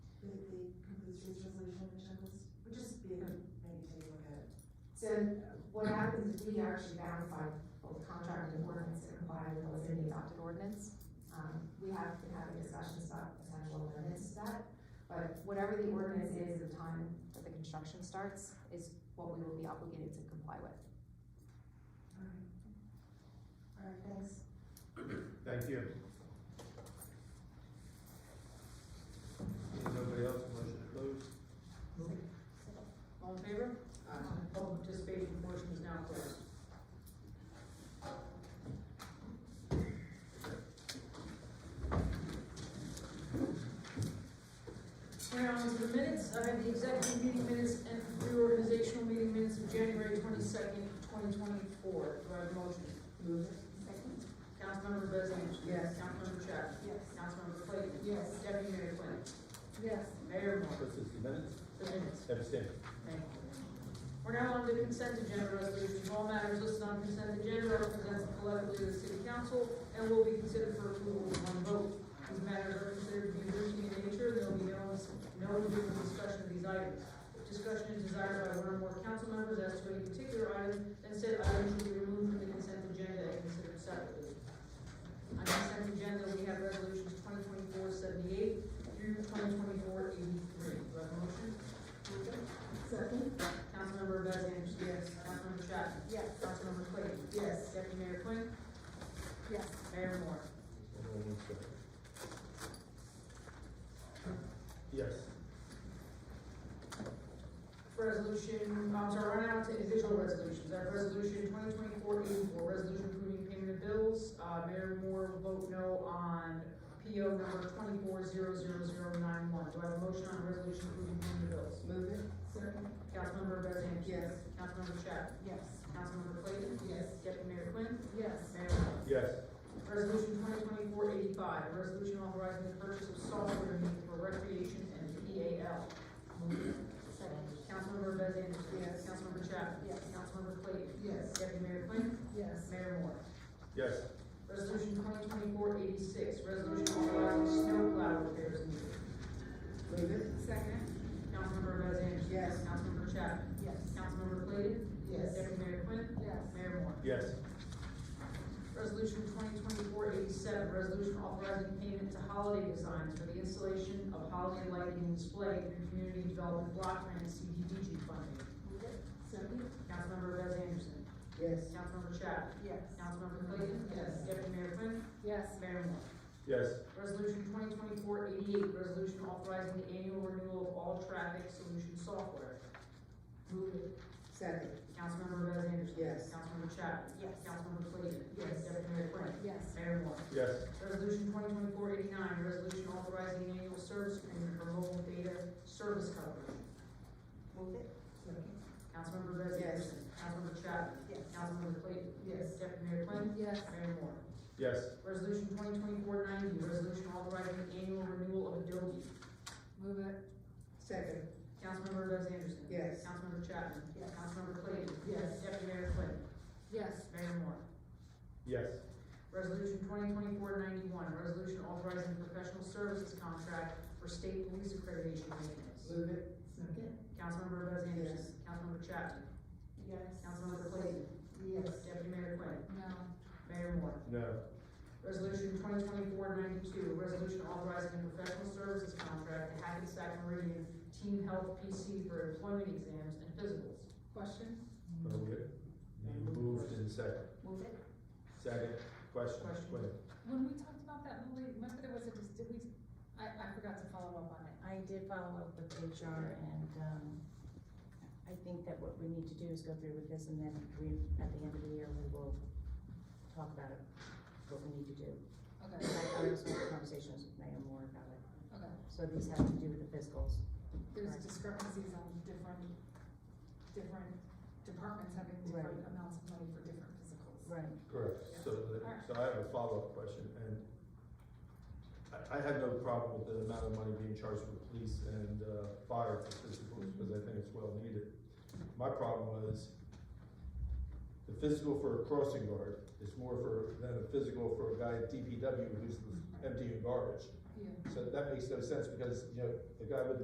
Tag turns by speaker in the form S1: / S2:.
S1: this year's resolution in checklist, which is big, maybe take a look at it. So what happens is we actually verify both contract and ordinance that comply with what's in the adopted ordinance. Um, we have been having discussions about potential amendments to that, but whatever the ordinance is at the time that the construction starts is what we will be obligated to comply with. All right, thanks.
S2: Thank you. Is nobody else, motion to close?
S3: All in favor? Public participation portion is now closed. Here on to the minutes, I have the executive meeting minutes and reorganizational meeting minutes of January twenty-second, twenty twenty-four. Do I have a motion? Move it.
S1: Second?
S3: Councilmember Bez Anderson.
S4: Yes.
S3: Councilmember Chapman.
S1: Yes.
S3: Councilmember Clayton.
S4: Yes.
S3: Deputy Mayor Quinn.
S1: Yes.
S3: Mayor Moore.
S2: This is the minutes,
S3: The minutes.
S2: abstain.
S3: Thank you. We're now on to consent agenda resolutions. All matters listed on consent agenda are presented collectively to the city council and will be considered for approval with one vote. These matters are considered to be routine in nature, there will be no, no individual discussion of these items. If discussion is desired by one or more council members as to any particular item, then said item should be removed from the consent agenda and considered separately. On consent agenda, we have resolutions 2024 78 through twenty twenty-four eighty-three. Do I have a motion? Move it.
S4: Second?
S3: Councilmember Bez Anderson.
S4: Yes.
S3: Councilmember Chapman.
S4: Yes.
S3: Councilmember Clayton.
S4: Yes.
S3: Deputy Mayor Quinn.
S4: Yes.
S3: Mayor Moore.
S2: Hold on one second. Yes,
S3: Resolution, I'm sorry, we're now to individual resolutions. I have resolution twenty twenty-four eighty-four, resolution approving payment of bills. Uh, Mayor Moore will vote no on PO number twenty-four zero zero zero nine one. Do I have a motion on resolution approving payment of bills?
S4: Move it. Second?
S3: Councilmember Bez Anderson.
S4: Yes.
S3: Councilmember Chapman.
S4: Yes.
S3: Councilmember Clayton.
S4: Yes.
S3: Deputy Mayor Quinn.
S4: Yes.
S3: Mayor Moore.
S2: yes,
S3: Resolution 2024-85, a resolution authorizing the purchase of software needed for recreation and PAL.
S4: Second?
S3: Councilmember Bez Anderson.
S4: Yes.
S3: Councilmember Chapman.
S4: Yes.
S3: Councilmember Clayton.
S4: Yes.
S3: Deputy Mayor Quinn.
S4: Yes.
S3: Mayor Moore.
S2: yes,
S3: Resolution 2024-86, resolution authorizing snowplow repairs needed.
S4: Move it. Second?
S3: Councilmember Bez Anderson.
S4: Yes.
S3: Councilmember Chapman.
S4: Yes.
S3: Councilmember Clayton.
S4: Yes.
S3: Deputy Mayor Quinn.
S4: Yes.
S3: Mayor Moore.
S2: yes,
S3: Resolution 2024-87, resolution authorizing payment to Holiday Designs for the installation of holiday lighting and display through Community Development Block Grant CDBG funding.
S4: Move it. Second?
S3: Councilmember Bez Anderson.
S4: Yes.
S3: Councilmember Chapman.
S4: Yes.
S3: Councilmember Clayton.
S4: Yes.
S3: Deputy Mayor Quinn.
S4: Yes.
S3: Mayor Moore.
S2: yes,
S3: Resolution 2024-88, resolution authorizing the annual renewal of all traffic solution software. Move it.
S4: Second?
S3: Councilmember Bez Anderson.
S4: Yes.
S3: Councilmember Chapman.
S4: Yes.
S3: Councilmember Clayton.
S4: Yes.
S3: Deputy Mayor Quinn.
S4: Yes.
S3: Mayor Moore.
S2: yes,
S3: Resolution 2024-89, resolution authorizing an annual service agreement for mobile data service coverage.
S4: Move it. Second?
S3: Councilmember Bez
S4: Yes.
S3: Anderson. Councilmember Chapman.
S4: Yes.
S3: Councilmember Clayton.
S4: Yes.
S3: Deputy Mayor Quinn.
S4: Yes.
S3: Mayor Moore.
S2: yes,
S3: Resolution 2024-90, resolution authorizing the annual renewal of Adobe.
S4: Move it. Second?
S3: Councilmember Bez Anderson.
S4: Yes.
S3: Councilmember Chapman.
S4: Yes.
S3: Councilmember Clayton.
S4: Yes.
S3: Deputy Mayor Quinn.
S4: Yes.
S3: Mayor Moore.
S2: yes,
S3: Resolution 2024-91, resolution authorizing professional services contract for state police accreditation maintenance.
S4: Move it. Second?
S3: Councilmember Bez
S4: Yes.
S3: Anderson. Councilmember Chapman.
S4: Yes.
S3: Councilmember Clayton.
S4: Yes.
S3: Deputy Mayor Quinn.
S4: No.
S3: Mayor Moore.
S2: no,
S3: Resolution 2024-92, resolution authorizing a professional services contract to Hackensack Meridian Team Health PC for employment exams and physicals.
S4: Question?
S2: okay. You moved in second,
S4: Move it.
S2: second, question, wait,
S5: When we talked about that, Lily, remember there was a, dis- did we, I, I forgot to follow up on it.
S6: I did follow up with HR and, um, I think that what we need to do is go through with this and then we, at the end of the year, we will talk about it, what we need to do.
S5: Okay,
S6: And I also had conversations with Mayor Moore about it.
S5: okay.
S6: So these have to do with the fiscals.
S5: There's
S6: Right.
S5: discrepancies on different, different departments having different amounts of money for different physicals.
S6: Right.
S2: correct, so, the- so I have a follow-up question, and I, I had no problem with the amount of money being charged for police and, uh, fire for physicals, because I think it's well needed. My problem was, the physical for a crossing guard is more for, than a physical for a guy at DPW who's emptying garbage.
S5: Yeah.
S2: So that makes no sense, because, you know, the guy with the